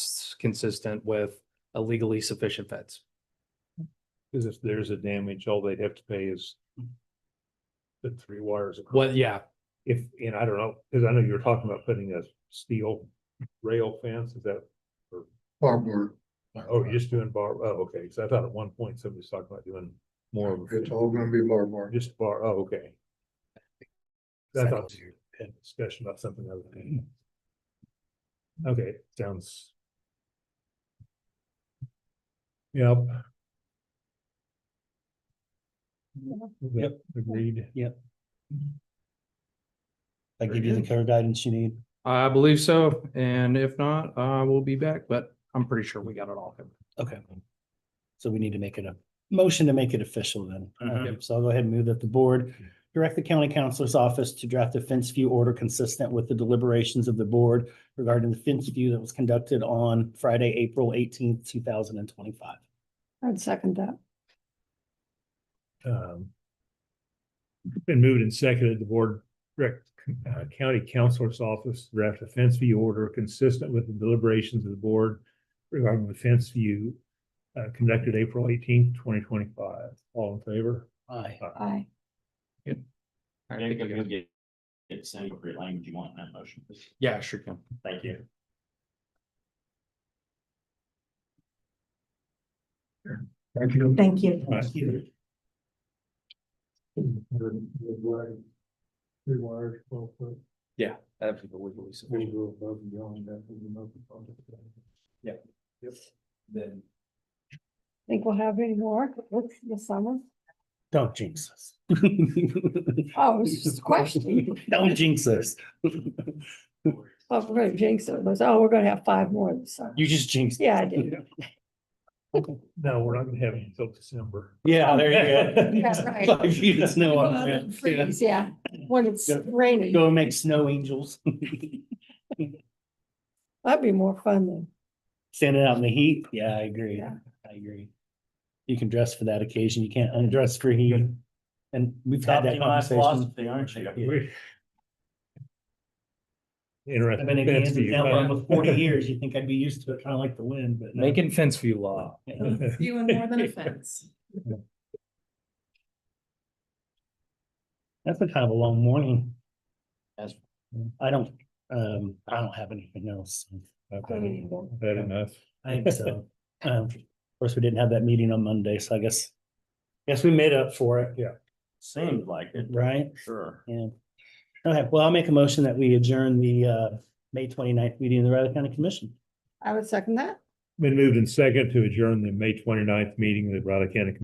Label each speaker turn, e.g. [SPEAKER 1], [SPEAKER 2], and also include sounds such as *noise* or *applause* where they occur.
[SPEAKER 1] that's consistent with a legally sufficient fence.
[SPEAKER 2] Cause if there's a damage, all they'd have to pay is the three wires. across.
[SPEAKER 1] Well, yeah,
[SPEAKER 2] If, and I don't know, cause I know you were talking about putting a steel rail fence, is that,
[SPEAKER 3] Barbara.
[SPEAKER 2] oh, you're just doing bar, oh, okay, cause I thought at one point somebody was talking about doing more of
[SPEAKER 3] It's
[SPEAKER 2] a,
[SPEAKER 3] all gonna be barbed.
[SPEAKER 2] just bar, oh, okay. I thought you had a discussion about something other than. Okay, sounds. Yep. Yep, agreed.
[SPEAKER 4] I give you the
[SPEAKER 2] Very good.
[SPEAKER 4] clear guidance you need.
[SPEAKER 1] I believe so. And if not, I will be back, but I'm pretty sure we got it all covered.
[SPEAKER 4] Okay. So we need to make it a motion to make it official then.
[SPEAKER 2] Mhm.
[SPEAKER 4] Um, So I'll go ahead and move that the board direct the county counselor's office to draft a fence view order consistent with the deliberations of the board regarding the fence view that was conducted on Friday, April eighteenth, two thousand and twenty-five.
[SPEAKER 5] I'd second that.
[SPEAKER 2] Um. Been moved and seconded, the board direct uh, county counselor's office to draft a fence view order consistent with the deliberations of the board regarding the fence view uh, conducted April eighteenth, twenty twenty-five. All in favor?
[SPEAKER 4] Aye.
[SPEAKER 5] Aye.
[SPEAKER 1] I
[SPEAKER 6] Nick,
[SPEAKER 1] think
[SPEAKER 6] if
[SPEAKER 1] we
[SPEAKER 6] you'll
[SPEAKER 1] got-
[SPEAKER 6] get, get some appropriate language you want in that motion.
[SPEAKER 1] Yeah, sure can.
[SPEAKER 6] Thank you.
[SPEAKER 3] Thank you.
[SPEAKER 5] Thank you.
[SPEAKER 2] Thank you.
[SPEAKER 3] Three wires, twelve foot.
[SPEAKER 1] Yeah, absolutely legally
[SPEAKER 3] We
[SPEAKER 1] sufficient.
[SPEAKER 3] go above and beyond that. we know the project.
[SPEAKER 1] Then
[SPEAKER 5] Think we'll have any more with the summer?
[SPEAKER 4] Don't jinx us.
[SPEAKER 5] Oh, it's just a question.
[SPEAKER 4] *laughs* Don't jinx us.
[SPEAKER 5] *laughs* Oh, if we're gonna jinx it. it was, Oh, we're gonna have five more this summer.
[SPEAKER 4] You just jinxed.
[SPEAKER 5] Yeah,
[SPEAKER 4] *laughs*
[SPEAKER 5] I did.
[SPEAKER 2] No, we're not gonna have it until December.
[SPEAKER 4] Yeah, there you go.
[SPEAKER 5] *laughs* That's right.
[SPEAKER 4] Five feet of snow
[SPEAKER 5] Well,
[SPEAKER 4] on it.
[SPEAKER 5] it
[SPEAKER 4] Oh, Yeah.
[SPEAKER 5] freezes, Yeah, when it's
[SPEAKER 4] Yeah.
[SPEAKER 5] raining,
[SPEAKER 4] Go make snow angels. *laughs*
[SPEAKER 5] that'd be more fun than,
[SPEAKER 4] Standing out in the heat. Yeah, I agree.
[SPEAKER 5] Yeah.
[SPEAKER 4] I agree. You can dress for that occasion. You can't undress for heat. And we've had that
[SPEAKER 6] Adopting my
[SPEAKER 4] conversation.
[SPEAKER 6] philosophy, aren't you?
[SPEAKER 2] We- Interesting.
[SPEAKER 4] I've been in
[SPEAKER 2] fence
[SPEAKER 4] Kansas
[SPEAKER 2] view.
[SPEAKER 4] now for almost forty years. You think I'd be used to it, kind of like the wind, but. no.
[SPEAKER 1] making fence view law.
[SPEAKER 7] Few and more than a fence.
[SPEAKER 4] That's been kind of a long morning.
[SPEAKER 6] That's-
[SPEAKER 4] I don't, um, I don't have anything else.
[SPEAKER 2] I've
[SPEAKER 5] I mean,
[SPEAKER 2] had-
[SPEAKER 5] you
[SPEAKER 2] I've had enough.
[SPEAKER 4] I think so. Um, of course, we didn't have that meeting on Monday, so I guess, guess we made up for it,
[SPEAKER 6] Seemed like it,
[SPEAKER 4] right?
[SPEAKER 6] sure.
[SPEAKER 4] Yeah. Okay, well, I'll make a motion that we adjourn the uh May 29th meeting of the Riley County Commission.
[SPEAKER 5] I would second that.
[SPEAKER 2] Been moved and second to adjourn the May 29th meeting of the Riley County